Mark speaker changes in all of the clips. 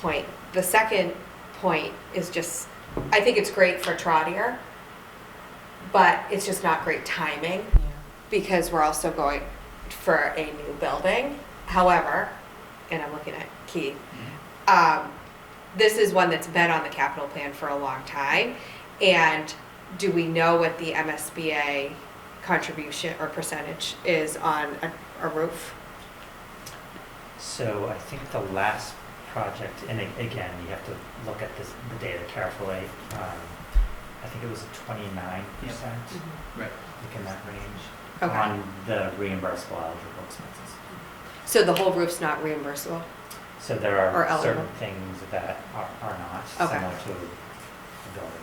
Speaker 1: point. The second point is just, I think it's great for Trotter, but it's just not great timing because we're also going for a new building. However, and I'm looking at Keith, um, this is one that's been on the capital plan for a long time. And do we know what the MSBA contribution or percentage is on a, a roof?
Speaker 2: So I think the last project, and a- again, you have to look at this, the data carefully. um, I think it was twenty-nine percent,
Speaker 3: Right.
Speaker 2: like in that range,
Speaker 1: Mm-hmm. Okay.
Speaker 2: on the reimbursable eligible expenses.
Speaker 1: So the whole roof's not reimbursable?
Speaker 2: So there
Speaker 1: Or
Speaker 2: are
Speaker 1: eligible.
Speaker 2: certain things that are, are not
Speaker 1: Okay.
Speaker 2: similar to the building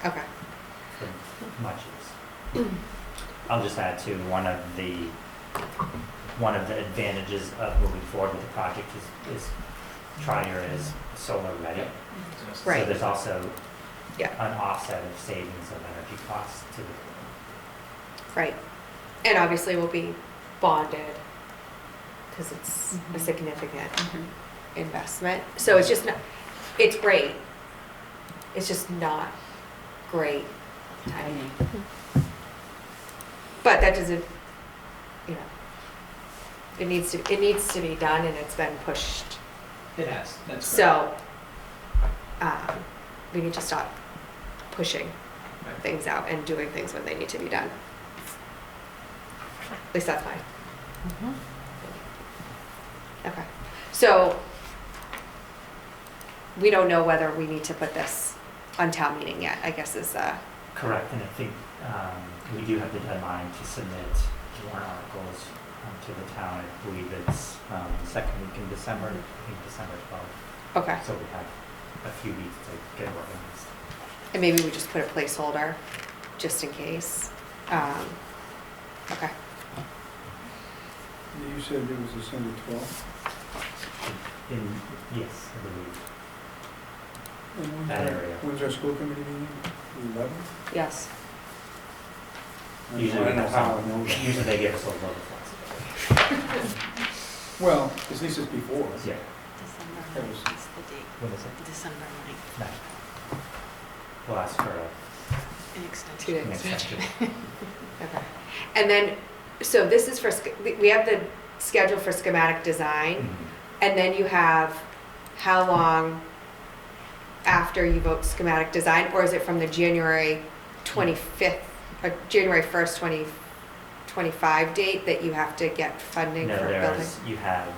Speaker 2: project,
Speaker 1: Okay.
Speaker 2: for much use. I'll just add to one of the, one of the advantages of moving forward with the project is, is Trier is solar ready.
Speaker 1: Right.
Speaker 2: So there's also
Speaker 1: Yeah.
Speaker 2: an offset of savings of energy costs to the,
Speaker 1: Right. And obviously we'll be bonded because it's a significant investment. So it's just not, it's great. It's just not great timing. But that doesn't, you know, it needs to, it needs to be done and it's been pushed.
Speaker 3: It has, that's correct.
Speaker 1: So, um, we need to stop pushing
Speaker 3: Right.
Speaker 1: things out and doing things when they need to be done. At least that's mine. Mm-hmm. Okay, so we don't know whether we need to put this on town meeting yet, I guess is, uh,
Speaker 2: correct, and I think, um, we do have the deadline to submit warrant articles um, to the town, I believe it's, um, second week in December, I think December twelfth,
Speaker 1: okay.
Speaker 2: so we have a few weeks to get working on this.
Speaker 1: And maybe we just put a placeholder, just in case. Um, okay,
Speaker 4: You said it was December 12th?
Speaker 2: In, yes, I believe,
Speaker 4: And when's
Speaker 2: That
Speaker 4: our-
Speaker 2: area.
Speaker 4: When's our school committee meeting? The 11th?
Speaker 1: yes.
Speaker 4: I don't
Speaker 2: usually, we
Speaker 4: know
Speaker 2: have
Speaker 4: how I
Speaker 2: some-
Speaker 4: know that.
Speaker 2: usually they give us a little flexibility.
Speaker 4: Well, at least it's before.
Speaker 2: Yeah,
Speaker 5: December
Speaker 4: That was-
Speaker 5: ninth is the date,
Speaker 2: what is it?
Speaker 5: December ninth,
Speaker 2: Nine. We'll ask for a,
Speaker 5: an
Speaker 1: Two days.
Speaker 5: extension.
Speaker 2: an extension.
Speaker 1: Okay, and then, so this is for, sch- we- we have the schedule for schematic design,
Speaker 2: Mhm.
Speaker 1: and then you have how long after you vote schematic design, or is it from the January 25th, or January 1st, 2025 date that you have to get funding
Speaker 2: No,
Speaker 1: for building?
Speaker 2: there's, you have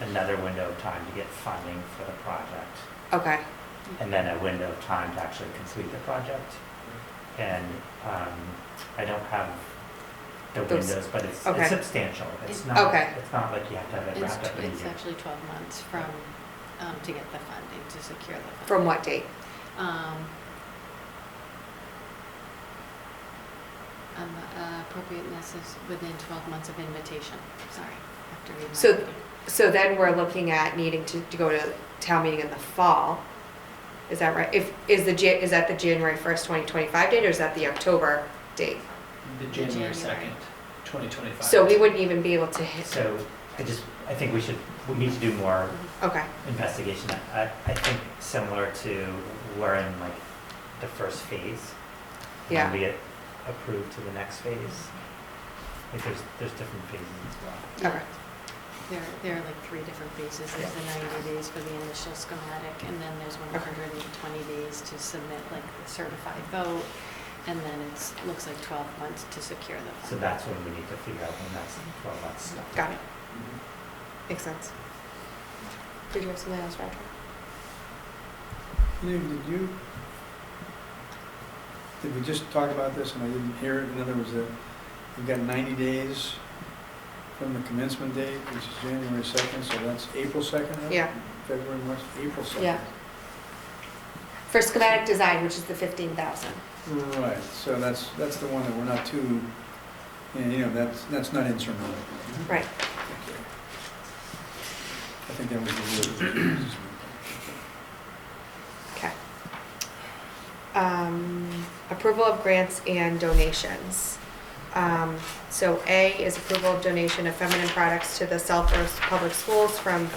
Speaker 2: another window of time to get funding for the project,
Speaker 1: Okay,
Speaker 2: and then a window of time to actually complete the project. And um, I don't have the
Speaker 1: Those-
Speaker 2: windows, but it's
Speaker 1: okay.
Speaker 2: it's substantial. It's
Speaker 5: It-
Speaker 2: not,
Speaker 1: Okay.
Speaker 2: it's not like you have to have it
Speaker 5: It's,
Speaker 2: wrapped up in a
Speaker 5: it's
Speaker 2: year.
Speaker 5: actually 12 months from, um, to get the funding, to secure the
Speaker 1: from
Speaker 5: funding.
Speaker 1: what date?
Speaker 5: Um, um, uh, appropriateness is within 12 months of invitation, sorry, have to read my.
Speaker 1: So-
Speaker 5: writing.
Speaker 1: So then we're looking at needing to, to go to town meeting in the fall. Is that right? If, is the, Ja- is that the January 1st, 2025 date, or is that the October date?
Speaker 3: The January
Speaker 5: January.
Speaker 3: 2nd, 2025.
Speaker 1: So we wouldn't even be able to hit,
Speaker 2: So I just, I think we should, we need to do more
Speaker 1: okay,
Speaker 2: investigation. I, I think similar to we're in like the first phase. and then
Speaker 1: Yeah.
Speaker 2: we get approved to the next phase. Like there's, there's different phases as well.
Speaker 1: okay,
Speaker 5: There, there are like three different phases. There's the 90 days for the initial schematic, and then there's 120 days to submit like the certified vote, and then it's, looks like 12 months to secure the
Speaker 2: So
Speaker 5: fund.
Speaker 2: that's when we need to figure out when that's, well, that's.
Speaker 1: got it,
Speaker 3: Mhm.
Speaker 1: makes sense. Did you have something else, Roger?
Speaker 4: Dave, did you, did we just talk about this and I didn't hear it? In other words, that we've got 90 days from the commencement date, which is January 2nd, so that's April 2nd? right?
Speaker 1: Yeah.
Speaker 4: February, March, April 2nd.
Speaker 1: Yeah. For schematic design, which is the 15,000.
Speaker 4: Right, so that's, that's the one that we're not too, you know, that's, that's not insurmountable.
Speaker 1: Right.
Speaker 4: I think that was the word.
Speaker 1: Okay. Um, Approval of grants and donations. Um, So A is approval of donation of feminine products to the Southborough Public Schools from